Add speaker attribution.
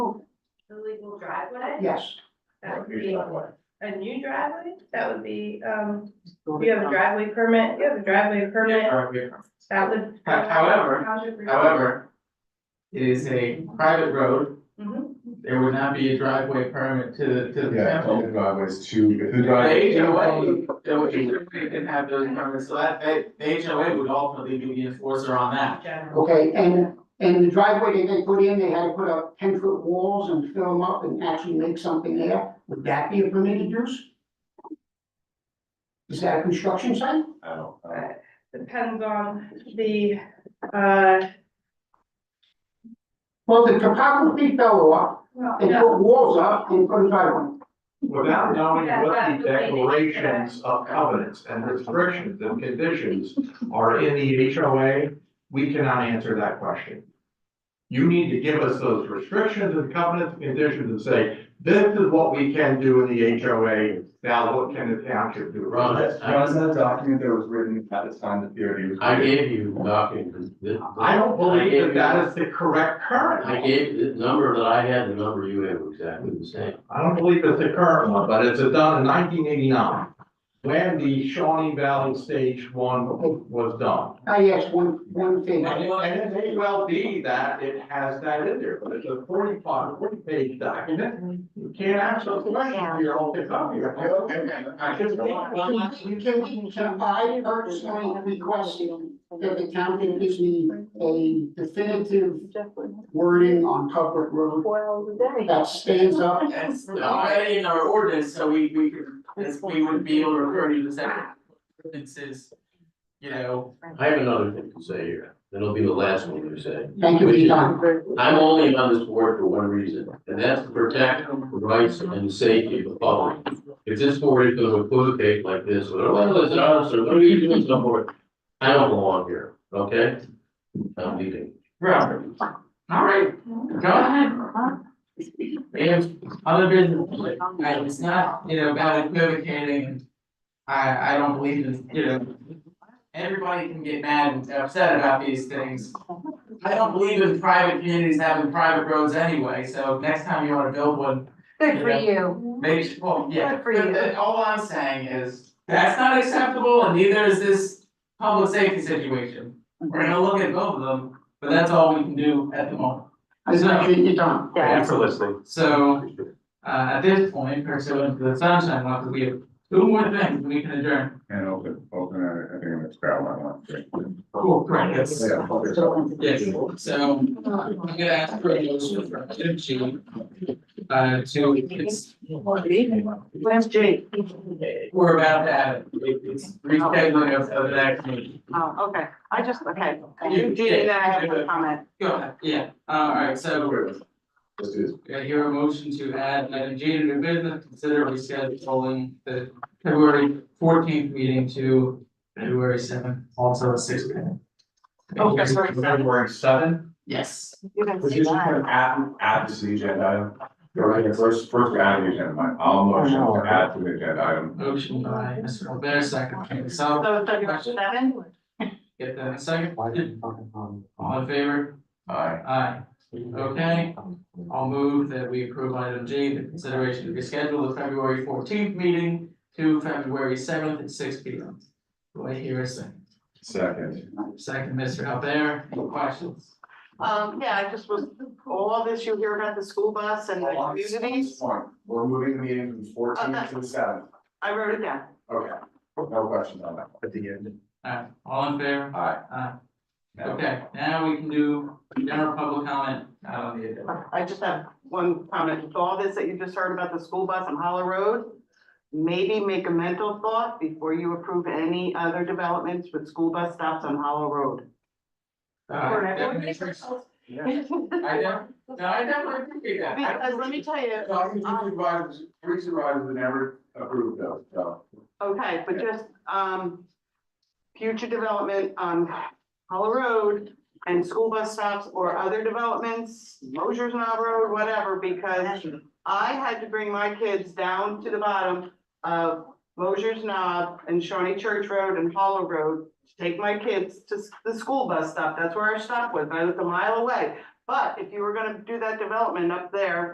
Speaker 1: driveway?
Speaker 2: Yes.
Speaker 1: That would
Speaker 3: Here's
Speaker 1: be
Speaker 3: my wife.
Speaker 1: a new driveway? That would be, um, you have a driveway permit, you have a driveway permit,
Speaker 4: Alright, here.
Speaker 1: that would.
Speaker 4: How- however,
Speaker 1: How's your-
Speaker 4: However, it is a private road,
Speaker 1: Mhm.
Speaker 4: there would not be a driveway permit to, the- to the
Speaker 3: Yeah,
Speaker 4: temple.
Speaker 3: the driveways to, if the
Speaker 4: The
Speaker 3: driveway.
Speaker 4: HOA, the HOA didn't have those permits, so that, they- the HOA would ultimately be the enforcer on that.
Speaker 1: General.
Speaker 2: Okay, and, and the driveway that they put in, they had to put up ten foot walls and fill them up and actually make something there, would that be a permitted use? Is that a construction site?
Speaker 3: I don't, I don't-
Speaker 1: But Depends on the, uh,
Speaker 2: Well, the topography fell off,
Speaker 1: well,
Speaker 2: they
Speaker 1: no,
Speaker 2: put walls up and put a driveway.
Speaker 5: Without knowing
Speaker 1: Yeah,
Speaker 5: what
Speaker 1: that's
Speaker 5: the
Speaker 1: the way they did it.
Speaker 5: declarations of covenants and restrictions and conditions are in the HOA, we cannot answer that question. You need to give us those restrictions and covenants, and conditions and say, this is what we can do in the HOA, now what can the township do?
Speaker 6: Ron, I,
Speaker 3: Ron's that document that was written at the time the theory was.
Speaker 6: I
Speaker 3: written.
Speaker 6: gave you documents. that-
Speaker 5: I don't believe that that
Speaker 6: I
Speaker 5: is the correct current.
Speaker 6: gave you- I gave the number that I had, the number you had were exactly the same.
Speaker 5: I don't believe it's the current one, but it's done in nineteen eighty-nine, when the Shawnee Valley Stage One was done.
Speaker 2: I asked one, one thing,
Speaker 5: And it, and it may well be that it has that in there, but it's a 45, 40 page document, you can't ask those questions, you're all picked up here. I just think-
Speaker 2: Can we- can we- can I personally request that the county gives me a definitive wording on public road
Speaker 7: Four hours a day.
Speaker 2: that stands up
Speaker 4: That's already in our ordinance, so we, we could, this- we would be able to refer to the second ordinances, you know.
Speaker 6: I have another thing to say here, and it'll be the last one you say.
Speaker 2: Thank you, John.
Speaker 6: I'm only on this board for one reason, and that's to protect the rights and the safety of the public. If this board is gonna equivocate like this, well, well, it's an officer, what are you doing so forth? I don't belong here, okay? I'm leaving.
Speaker 4: Right. Alright, go ahead. If other business, I, it's not, you know, about equivocating, I, I don't believe in, you know. Everybody can get mad and upset about these things. I don't believe in private communities having private roads anyway, so next time you wanna build one,
Speaker 7: Good for you.
Speaker 4: Maybe, she- well, yeah,
Speaker 7: Good for
Speaker 4: but
Speaker 7: you.
Speaker 4: the- all I'm saying is, that's not acceptable and neither is this public safety situation. We're gonna look at both of them, but that's all we can do at the moment.
Speaker 2: I appreciate your time.
Speaker 7: Yeah.
Speaker 6: for listening.
Speaker 4: So, uh, at this point, pursuant to the sunshine law, we have two more things we can adjourn.
Speaker 3: And open, open, I I think I'm gonna scrap my one.
Speaker 4: Cool. Right, yes,
Speaker 3: Yeah, focus on-
Speaker 4: yes, so I'm gonna ask for a motion for item G, uh, to, it's,
Speaker 7: Where's Jake?
Speaker 4: we're about to have, it, it's rescheduling of of the next meeting.
Speaker 7: Oh, okay, I just, okay,
Speaker 4: You
Speaker 7: you
Speaker 4: did.
Speaker 7: did, then I have a comment.
Speaker 4: Go ahead, yeah, uh, alright, so
Speaker 3: This is,
Speaker 4: do I hear a motion to add item G to new business, consider rescheduling the February fourteenth meeting to February seventh, also a six P M.
Speaker 7: Oh, that's right.
Speaker 5: February seven?
Speaker 4: Yes,
Speaker 7: You can
Speaker 3: this
Speaker 7: see
Speaker 3: is kind of
Speaker 7: that.
Speaker 3: add, add this to the agenda item. Right, first, first we add the agenda, item. I'll motion to add to the agenda item.
Speaker 4: motion by Mr. Albert, second, by Ms. Sal.
Speaker 7: So February seven?
Speaker 4: get that in a second, all in favor?
Speaker 3: Aye.
Speaker 4: Aye, okay, I'll move that we approve item G, the consideration to reschedule the February fourteenth meeting to February seventh at six P M. Do I hear a second?
Speaker 3: Second.
Speaker 4: Second, Mr. Albert, any questions?
Speaker 7: Um, yeah, I just was, all this you hear about the school bus and the communities,
Speaker 3: One, we're moving the meeting from fourteen to the seventh.
Speaker 7: I wrote it down.
Speaker 3: Okay, no questions on that. At the end.
Speaker 4: Alright, all in favor?
Speaker 3: Aye.
Speaker 4: Aye. Uh, Okay, now we can do general public comment, uh,
Speaker 7: I just have one comment, With all this that you just heard about the school bus on Hollow Road, maybe make a mental thought before you approve any other developments with school bus stops on Hollow Road.
Speaker 4: uh, definitions. I don't, no, I definitely appreciate that. I don't-
Speaker 7: Because let me tell you, uh,
Speaker 3: Talking to supervisors, three supervisors never approved those, so.
Speaker 7: Okay, but just, um, future development on Hollow Road and school bus stops or other developments, Mosher's Knob Road, whatever, because I had to bring my kids down to the bottom of Mosher's Knob and Shawnee Church Road and Hollow Road to take my kids to s- the school bus stop. That's where our stop was. and I lived a mile away. But if you were gonna do that development up there,